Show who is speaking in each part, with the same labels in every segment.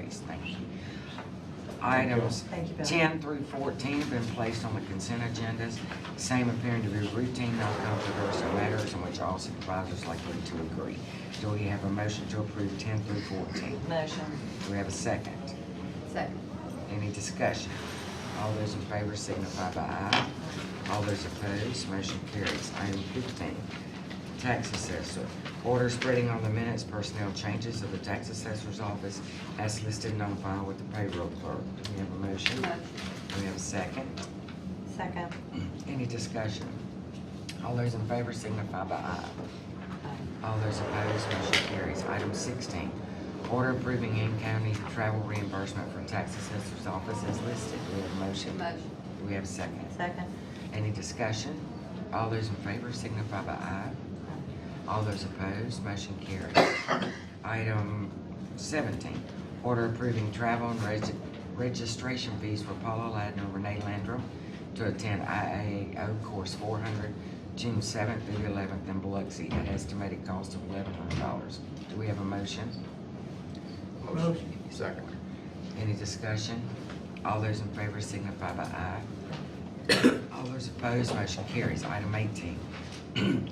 Speaker 1: legislation. Items
Speaker 2: Thank you, Bill.
Speaker 1: 10 through 14 have been placed on the consent agendas, same appearing to be routine, non-controversial matters on which all supervisors likely to agree. Do we have a motion to approve 10 through 14?
Speaker 2: Motion.
Speaker 1: Do we have a second?
Speaker 3: Second.
Speaker 1: Any discussion? All those in favor signify by aye. All those opposed, motion carries. Item fifteen, tax assessor. Order spreading on the minutes personnel changes of the tax assessor's office as listed and on file with the payroll clerk. Do we have a motion?
Speaker 3: Motion.
Speaker 1: Do we have a second?
Speaker 2: Second.
Speaker 1: Any discussion? All those in favor signify by aye.
Speaker 2: Um,
Speaker 1: All those opposed, motion carries. Item sixteen, order approving in-county travel reimbursement for tax assessor's office as listed. Do we have a motion?
Speaker 3: Motion.
Speaker 1: Do we have a second?
Speaker 2: Second.
Speaker 1: Any discussion? All those in favor signify by aye.
Speaker 2: Um,
Speaker 1: All those opposed, motion carries. Item seventeen, order approving travel and reg- registration fees for Paula Ladner, and Renee Landrum to attend IAO Course four hundred, June seventh through the eleventh in Biloxi at estimated cost of eleven hundred dollars. Do we have a motion?
Speaker 4: Motion. Second.
Speaker 1: Any discussion? All those in favor signify by aye. All those opposed, motion carries. Item eighteen,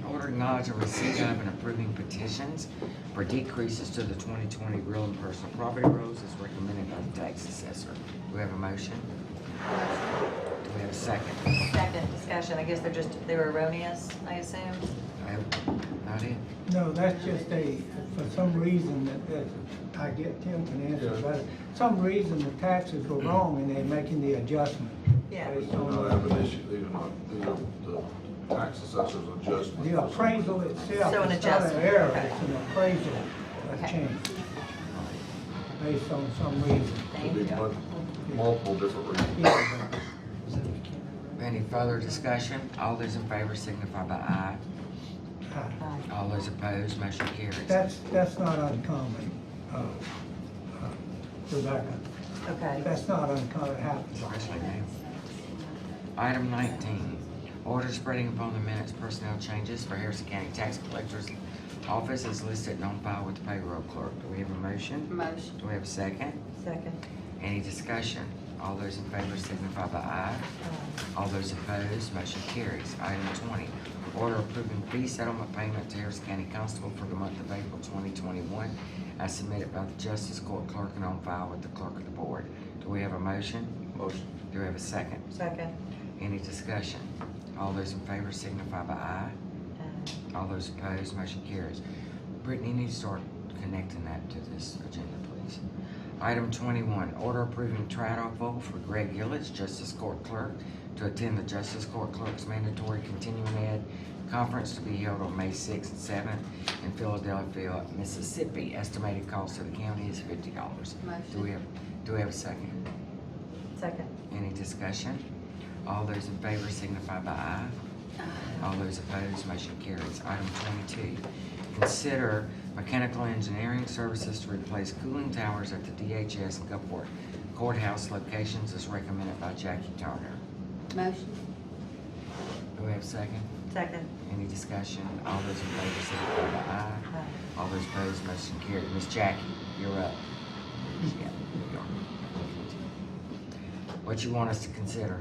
Speaker 1: order acknowledging receipt of and approving petitions for decreases to the twenty twenty real and personal property rules as recommended by the tax assessor. Do we have a motion? Do we have a second?
Speaker 2: Second discussion. I guess they're just, they were erroneous, I assume?
Speaker 1: I have- Not it?
Speaker 5: No, that's just a, for some reason that, that, I get Tim can answer better. Some reason the taxes were wrong and they're making the adjustment.
Speaker 2: Yeah.
Speaker 5: based
Speaker 4: No,
Speaker 5: on-
Speaker 4: I have an issue, these are not, these are the tax assessor's adjustment.
Speaker 5: The appraisal
Speaker 2: So
Speaker 5: itself
Speaker 2: an
Speaker 5: is not an
Speaker 2: adjustment,
Speaker 5: error,
Speaker 2: okay.
Speaker 5: it's an appraisal, a
Speaker 2: Okay.
Speaker 5: change. Based on some reason.
Speaker 2: Thank
Speaker 4: Could be
Speaker 2: you.
Speaker 4: mul- multiple different reasons.
Speaker 5: Yeah, but-
Speaker 1: Any further discussion? All those in favor signify by aye.
Speaker 5: uh,
Speaker 2: Aye.
Speaker 1: All those opposed, motion carries.
Speaker 5: That's, that's not uncommon, uh, uh, Rebecca.
Speaker 2: Okay.
Speaker 5: That's not uncommon, it happens.
Speaker 1: Especially now. Item nineteen, order spreading upon the minutes personnel changes for Harrison County Tax Collector's Office is listed and on file with the payroll clerk. Do we have a motion?
Speaker 3: Motion.
Speaker 1: Do we have a second?
Speaker 2: Second.
Speaker 1: Any discussion? All those in favor signify by aye. All those opposed, motion carries. Item twenty, order approving fee settlement payment to Harrison County Constable for the month of April twenty twenty-one as submitted by the Justice Court Clerk and on file with the clerk of the board. Do we have a motion?
Speaker 4: Motion.
Speaker 1: Do we have a second?
Speaker 2: Second.
Speaker 1: Any discussion? All those in favor signify by aye.
Speaker 2: Uh,
Speaker 1: All those opposed, motion carries. Brittany, you need to start connecting that to this agenda, please. Item twenty-one, order approving trial vote for Greg Gillis, Justice Court Clerk, to attend the Justice Court Clerk's mandatory continuing ed conference to be held on May sixth and seventh in Philadelphia, Mississippi. Estimated cost to the county is fifty dollars. Do we
Speaker 3: Motion.
Speaker 1: have, do we have a second?
Speaker 2: Second.
Speaker 1: Any discussion? All those in favor signify by aye. All those opposed, motion carries. Item twenty-two, consider mechanical engineering services to replace cooling towers at the DHS and Gulfport courthouse locations as recommended by Jackie Turner.
Speaker 3: Motion.
Speaker 1: Do we have a second?
Speaker 2: Second.
Speaker 1: Any discussion? All those in favor signify by aye.
Speaker 2: Uh,
Speaker 1: All those opposed, motion carried. Miss Jackie, you're up. Yeah, you are. What you want us to consider?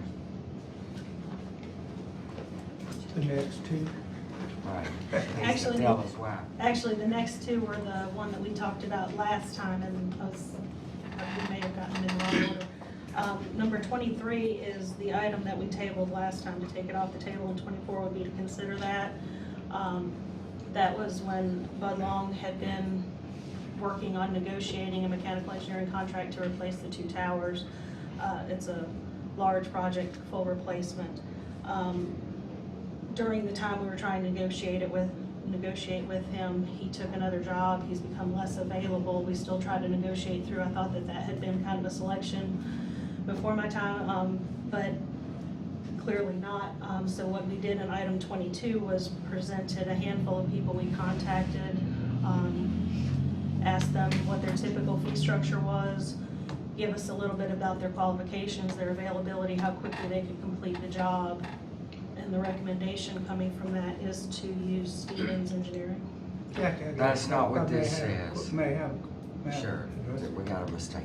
Speaker 5: The next two.
Speaker 1: Right.
Speaker 6: Actually,
Speaker 1: Tell us why.
Speaker 6: Actually, the next two were the one that we talked about last time, and I was- we may have gotten them in wrong order. Um, Number 23 is the item that we tabled last time, to take it off the table, and 24 would be to consider that. Um, That was when Bud Long had been working on negotiating a mechanical engineering contract to replace the two towers. Uh, It's a large project, full replacement. Um, during the time we were trying to negotiate it with, negotiate with him, he took another job, he's become less available, we still tried to negotiate through, I thought that that had been kind of a selection before my time, um, but clearly not. Um, so what we did in item twenty-two was presented a handful of people we contacted, um, asked them what their typical fee structure was, give us a little bit about their qualifications, their availability, how quickly they could complete the job, and the recommendation coming from that is to use Stevens Engineering.
Speaker 5: Jack, I got-
Speaker 1: That's not what
Speaker 5: I may
Speaker 1: this
Speaker 5: have-
Speaker 1: says.
Speaker 5: May have. may have-
Speaker 1: Sure, we got a mistake